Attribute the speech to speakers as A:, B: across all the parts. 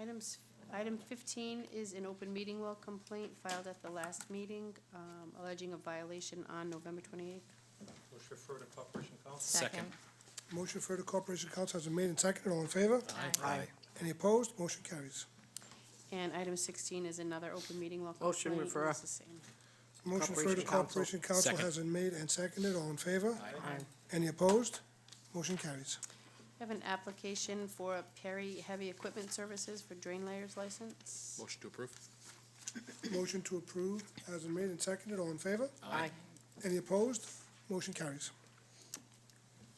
A: Items, item fifteen is an open meeting law complaint filed at the last meeting, um, alleging a violation on November twenty-eighth.
B: Motion to refer to Corporation Council.
C: Second.
D: Motion for the Corporation Council has been made and seconded. All in favor?
C: Aye.
D: Any opposed? Motion carries.
A: And item sixteen is another open meeting law complaint.
E: Motion
A: and
E: refer.
A: it's the same.
D: Motion for the
E: Corporation Council.
D: Corporation Council
C: Second.
D: has been made and seconded. All in favor?
E: Aye.
D: Any opposed? Motion carries.
A: We have an application for a Perry Heavy Equipment Services for drain layers license.
C: Motion to approve?
D: Motion to approve has been made and seconded. All in favor?
E: Aye.
D: Any opposed? Motion carries.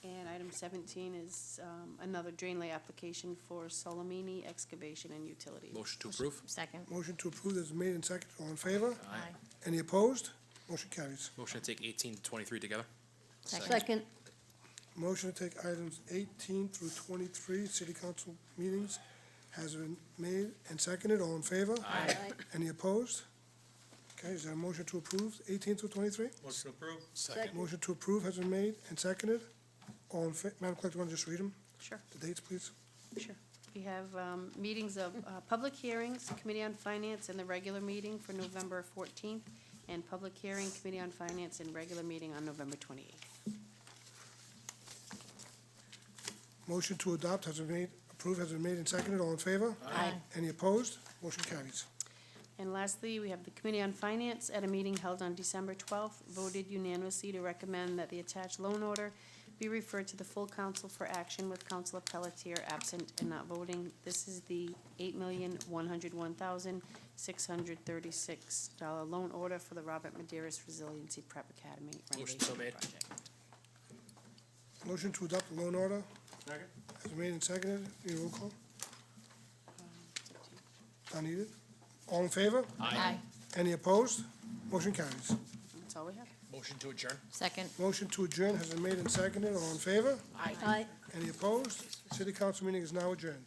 A: And item seventeen is, um, another drain lay application for Solomini Excavation and Utilities.
C: Motion to approve?
F: Second.
D: Motion to approve has been made and seconded. All in favor?
F: Aye.
D: Any opposed? Motion carries.
C: Motion to take eighteen to twenty-three together?
F: Second.
D: Motion to take items eighteen through twenty-three, city council meetings, has been made and seconded. All in favor?
F: Aye.
D: Any opposed? Okay, is there a motion to approve eighteen through twenty-three?
B: Motion to approve.
F: Second.
D: Motion to approve has been made and seconded. All in fa, Madam Clerk, do you want to just read them,
A: Sure.
D: the dates, please?
A: Sure. We have um, meetings of, uh, public hearings, Committee on Finance, and the regular meeting for November 14th, and public hearing, Committee on Finance, and regular meeting on November 28th.
D: Motion to adopt has been made, approve has been made and seconded. All in favor?
F: Aye.
D: Any opposed? Motion carries.
A: And lastly, we have the Committee on Finance, at a meeting held on December 12th, voted unanimously to recommend that the attached loan order be referred to the full council for action with Councilor Pelletier absent and not voting. This is the $8,101,636 loan order for the Robert Maderas Resiliency Prep Academy
C: Motion
A: renovation
C: so made.
A: project.
D: Motion to adopt the loan order
B: Second.
D: has been made and seconded. Any roll call? Not needed. All in favor?
F: Aye.
D: Any opposed? Motion carries.
A: That's all we have.
C: Motion to adjourn?
F: Second.
D: Motion to adjourn has been made and seconded. All in favor?
F: Aye.
D: Any opposed? City council meeting is now adjourned.